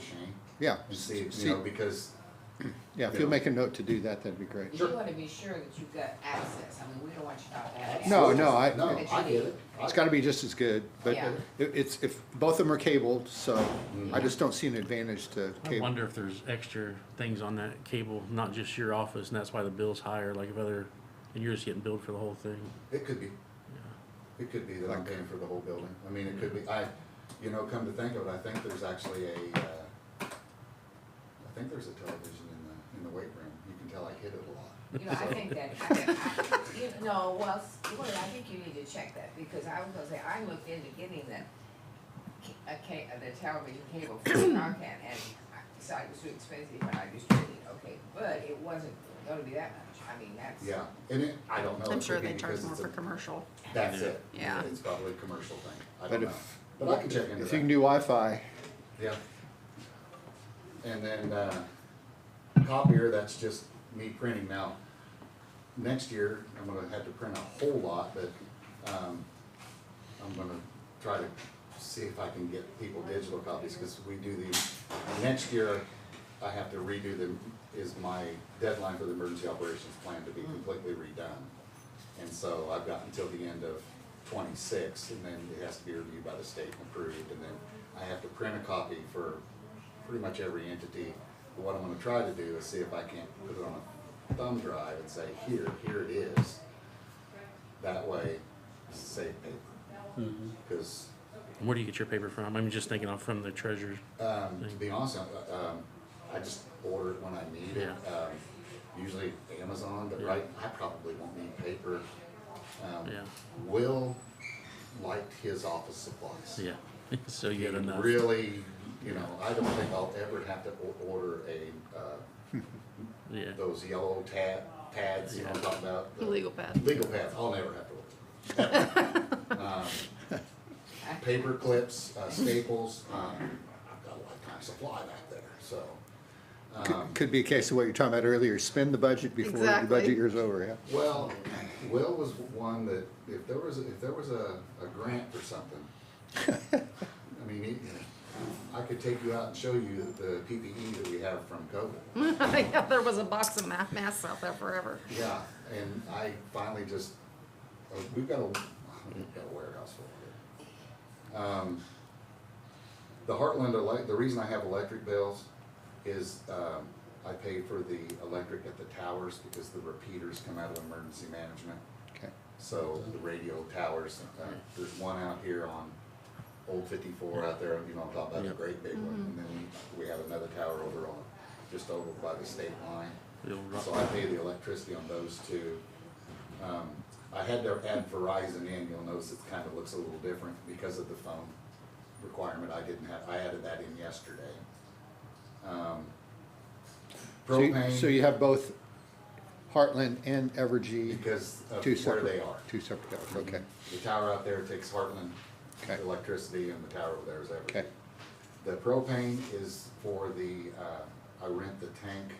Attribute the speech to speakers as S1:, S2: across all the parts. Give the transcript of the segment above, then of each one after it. S1: Shane,
S2: Yeah.
S1: and see,
S2: see-
S1: you know, because,
S2: Yeah, if you'll make a note to do that, that'd be great.
S3: You wanna be sure that you've got access, I mean, we don't want you not to have access.
S2: No, no, I-
S1: No, I get it.
S2: It's gotta be just as good, but
S3: Yeah.
S2: it- it's, if, both of them are cabled, so
S1: Mm-hmm.
S2: I just don't see an advantage to
S4: I
S2: cable.
S4: wonder if there's extra things on that cable, not just your office, and that's why the bill's higher, like if other, and you're just getting billed for the whole thing.
S1: It could be. It could be that I'm
S2: Like-
S1: paying for the whole building. I mean, it could be, I, you know, come to think of it, I think there's actually a, uh, I think there's a television in the, in the weight room. You can tell I hit it a lot.
S3: You know, I think that, I think- you know, well, s- well, I think you need to check that, because I was gonna say, I looked into getting that, ca- a ca- uh, the television cable for Narcan, and I decided it was too expensive, and I just traded, it. okay, but it wasn't gonna be that much, I mean, that's.
S1: Yeah, and it, I don't know.
S5: I'm
S1: It
S5: sure
S1: could be
S5: they charge
S1: because
S5: more
S1: Oh, it's
S5: for
S1: a-
S5: commercial.
S1: That's it.
S5: Yeah.
S1: It's probably a commercial thing. I
S2: But
S1: don't know.
S2: if-
S1: But I can check into
S2: If you can
S1: that.
S2: do Wi-Fi,
S1: Yeah. And then, uh, copier, that's just me printing now. Next year, I'm gonna have to print a whole lot, but, um, I'm gonna try to see if I can get people digital copies, cause we do these. Next year, I have to redo them, is my deadline for the emergency operations plan to be completely redone. And so I've got until the end of twenty-six, and then it has to be reviewed by the state and approved, and then I have to print a copy for pretty much every entity. But What I'm gonna try to do is see if I can't put it on a thumb drive and say, here, here it is. That way, save paper. Because,
S4: And where do you get your paper from? I'm just thinking off from the treasurer's.
S1: um, to be honest, I- um, I just order it when I need it.
S4: Yeah.
S1: Um, Usually Amazon, but
S4: Yeah.
S1: right, I probably won't need paper. Um,
S4: Yeah.
S1: Will liked his office supplies.
S4: Yeah, so you had
S1: He
S4: enough.
S1: Really, you know, I don't think I'll ever have to o- order a, uh,
S4: Yeah,
S1: those yellow tab, pads, you know, what I'm talking about. the-
S5: Legal pad.
S1: Legal pads, I'll never have to order. Um,
S3: I-
S1: paper clips, uh, staples, um, I've got a lifetime supply back there, so. um,
S2: could be a case of what you're talking about earlier, spend the budget before the
S5: Exactly.
S2: budget year's over, yeah?
S1: Well, Will was one that, if there was, if there was a, a grant for something, I mean, he- I could take you out and show you the PPE that we have from COVID.
S5: Yeah, there was a box of ma- masks out there forever.
S1: Yeah, and I finally just, uh, we've got a, we've got a warehouse full of it. Um, The Heartland, elec- the reason I have electric bills is um, I pay for the electric at the towers because the repeaters come out of emergency management.
S2: Okay.
S1: So the radio towers, uh, there's one out here on Old Fifty-four out there, you know, I'm talking about the
S4: Yep.
S1: great big one. And then we have another tower over on, just over by the state line.
S4: the old rock.
S1: So I pay the electricity on those two. Um, I had to add Verizon in, you'll notice it kind of looks a little different because of the phone requirement, I didn't have, I added that in yesterday. Um,
S2: So you- So you
S1: Propane,
S2: have both Heartland and Evergy,
S1: because of
S2: two
S1: where
S2: separate.
S1: they are.
S2: Two separate towers, okay,
S1: The tower out there takes Heartland
S2: Okay.
S1: electricity and the tower over there is
S2: okay,
S1: Evergy. The propane is for the, uh, I rent the tank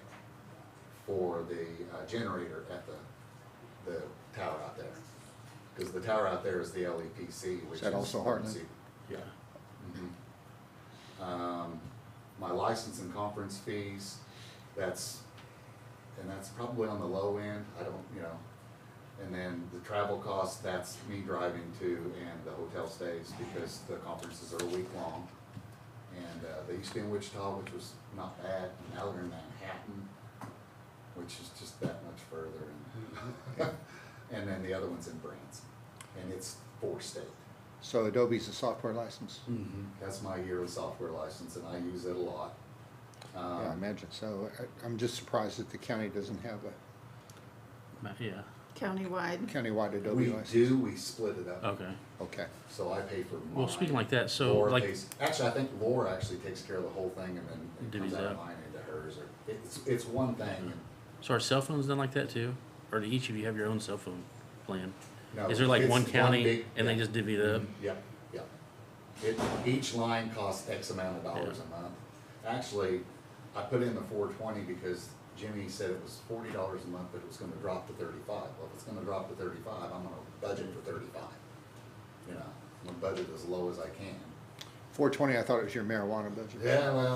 S1: for the uh, generator at the, the tower out there. Cause the tower out there is the LEPC, which is.
S2: that also Heartland?
S4: Yeah,
S1: Um, my license and conference fees, that's, and that's probably on the low end, I don't, you know. And then the travel costs, that's me driving to and the hotel stays because the conferences are a week long. And, uh, they used to be in Wichita, which was not bad, now they're in Manhattan, which is just that much further. and- And then the other one's in Branson, and it's four state.
S2: So Adobe's a software license?
S1: Mm-hmm. That's my yearly software license, and I use it a lot.
S2: Yeah, I
S1: Um,
S2: imagine, so I- I'm just surprised that the county doesn't have a
S4: Ma- yeah,
S5: Countywide.
S2: countywide Adobe
S1: We
S2: license.
S1: do, we split it up,
S4: okay.
S2: Okay,
S1: so I pay for mine.
S4: Well, speaking like that, so
S1: Laura
S4: like,
S1: pays- Actually, I think Laura actually takes care of the whole thing, and then it comes
S4: Divvies
S1: out of
S4: up.
S1: mine into hers, or, it's, it's one thing. and-
S4: so are cell phones done like that too? Or do each of you have your own cell phone plan?
S1: No,
S4: Is there like
S1: it's
S4: one
S1: big-
S4: county and they
S1: yeah.
S4: just divvy it up?
S1: Mm-hmm. Yep, yep. It, each line costs X amount of dollars a month. Actually, I put in the four twenty because Jimmy said it was forty dollars a month, but it was gonna drop to thirty-five. Well, if it's gonna drop to thirty-five, I'm gonna budget for thirty-five. You know, I'm gonna budget as low as I can.
S2: four twenty, I thought it was your marijuana budget.
S1: Yeah, well,